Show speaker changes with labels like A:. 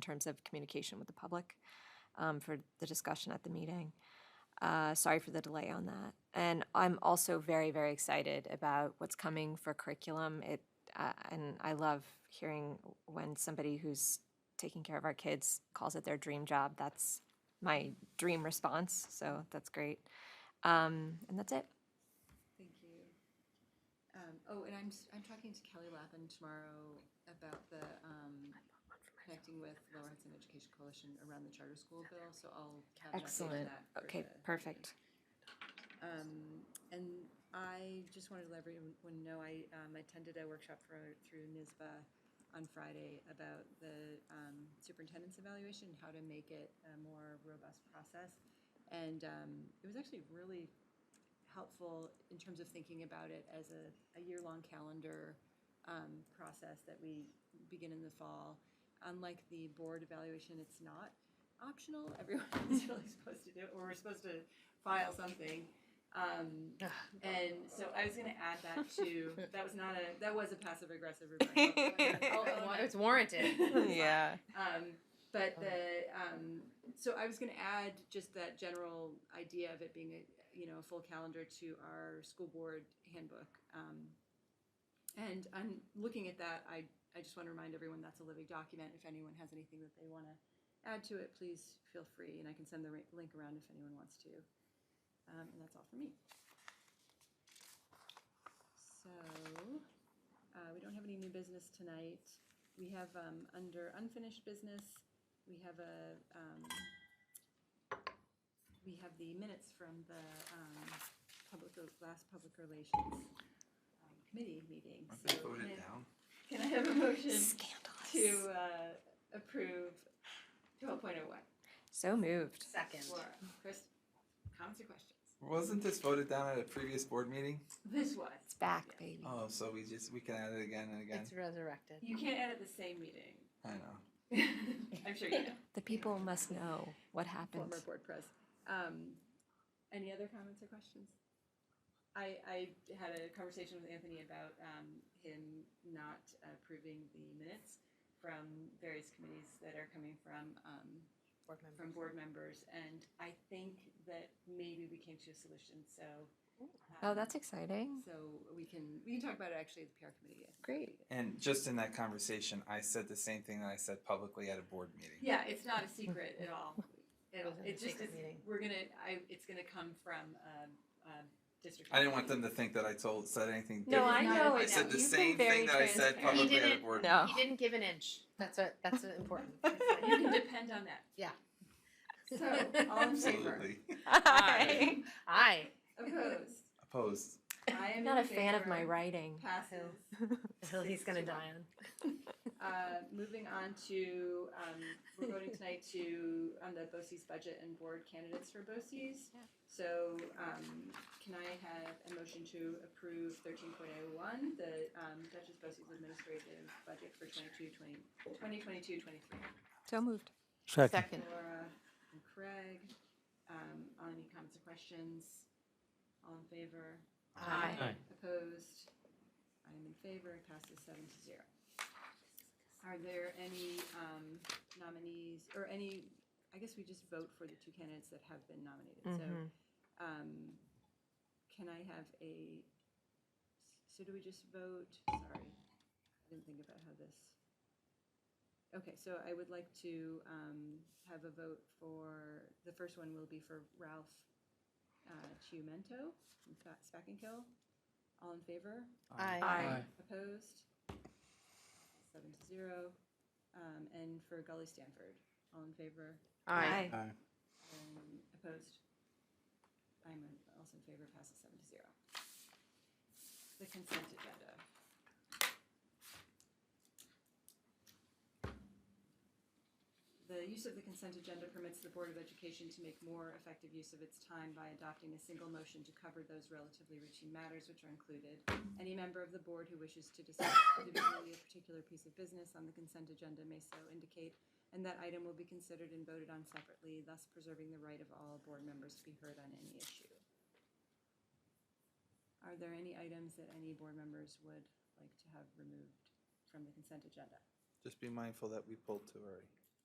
A: terms of communication with the public um, for the discussion at the meeting. Uh, Sorry for the delay on that. And I'm also very, very excited about what's coming for curriculum. It, uh, and I love hearing when somebody who's taking care of our kids calls it their dream job. That's my dream response, so that's great. Um, And that's it.
B: Thank you. Um, oh, and I'm, s- I'm talking to Kelly Lappin tomorrow about the, um, connecting with Lower Hudson Education Coalition around the charter school bill, so I'll have an update on
A: Excellent.
B: that. for
A: Okay,
B: the-
A: perfect.
B: Um, and I just wanted to let everyone know, I, um, attended a workshop for, through NISBA on Friday about the, um, superintendent's evaluation, and how to make it a more robust process. And, um, it was actually really helpful in terms of thinking about it as a, a year-long calendar um, process that we begin in the fall. Unlike the board evaluation, it's not optional. Everyone is really supposed to do it, or we're supposed to file something. Um, and so I was going to add that to that was not a that was a passive aggressive remark. I'll own it.
C: Oh, It's warranted.
D: Yeah.
B: Um, but the, um, so I was gonna add just that general idea of it being a, you know, a full calendar to our school board handbook. Um, and I'm looking at that, I, I just wanna remind everyone that's a living document, if anyone has anything that they wanna add to it, please feel free, and I can send the ri- link around if anyone wants to. Um, and that's all for me. So, uh, we don't have any new business tonight. We have, um, under unfinished business, we have a, um, we have the minutes from the, um, public, last public relations um, committee meeting. So can I-
E: down.
B: Can I have a motion
A: Scandalous.
B: to, uh, approve twelve point oh one?
A: So moved.
C: Second.
B: Laura, Chris, comments or questions?
E: Wasn't this voted down at a previous board meeting?
B: This was.
A: It's back, baby.
E: Oh, so we just we can add it again and again.
C: It's resurrected.
B: You can't edit the same meeting.
E: I know.
B: I'm sure you know.
A: The people must know what happened.
B: former board press. Um, any other comments or questions? I, I had a conversation with Anthony about um, him not approving the minutes from various committees that are coming from um,
C: Board
B: from board members, and I think that maybe we came to a solution. So.
A: Oh,
B: um,
A: that's exciting.
B: So we can we can talk about it actually at the PR committee. I think.
A: Great.
E: And just in that conversation, I said the same thing that I said publicly at a board meeting.
B: Yeah, it's not a secret at all. It,
C: Wasn't
B: it
C: a
B: just
C: secret
B: is,
C: meeting.
B: we're gonna, I, it's gonna come from, um, um, district.
E: I didn't want them to think that I told said anything.
A: No, I
E: different.
A: know.
E: I
B: I
E: said
B: know.
E: the
A: You've been
E: same
A: very
E: thing that I said
A: transparent.
C: He
E: publicly at a
C: didn't-
E: board.
A: No.
C: He didn't give an inch. That's what. That's what important.
B: You can depend on that.
C: Yeah.
B: So, all in
E: meeting.
B: favor?
E: Absolutely
A: Hi.
C: Aye.
B: Opposed?
E: opposed.
B: I am
A: I'm not a
B: in
A: fan of my
B: favor.
A: writing.
B: Passes.
C: Until he's gonna die on.
B: Uh, moving on to, um, we're voting tonight to, on the BOCES budget and board candidates for BOCES. So, um, can I have a motion to approve thirteen point oh one, the, um, Duchess BOCES administrative budget for 22-23?
A: So moved.
D: Second.
C: Second.
B: Laura and Craig, um, on any comments or questions? All in favor?
C: Aye.
D: Aye.
B: Opposed? I am in favor, it passes seven to zero. Are there any um, nominees, or any, I guess we just vote for the two candidates that have been nominated, so.
A: Mm-hmm.
B: um, Can I have a, so do we just vote, sorry, I didn't think about how this. Okay, so I would like to um, have a vote for, the first one will be for Ralph uh, Chiumento from Fa- Spack and Kill. All in favor?
C: Aye.
B: Opposed? Seven to zero. Um, And for Gully Stanford, all in favor?
C: Aye.
B: Um, Opposed? I'm in- also in favor, passes seven to zero. The consent agenda. The use of the consent agenda permits the Board of Education to make more effective use of its time by adopting a single motion to cover those relatively routine matters which are included. Any member of the board who wishes to discuss individually a particular piece of business on the consent agenda may so indicate and that item will be considered and voted on separately, thus preserving the right of all board members to be heard on any issue. Are there any items that any board members would like to have removed from the consent agenda?
E: Just be mindful that we pulled two already.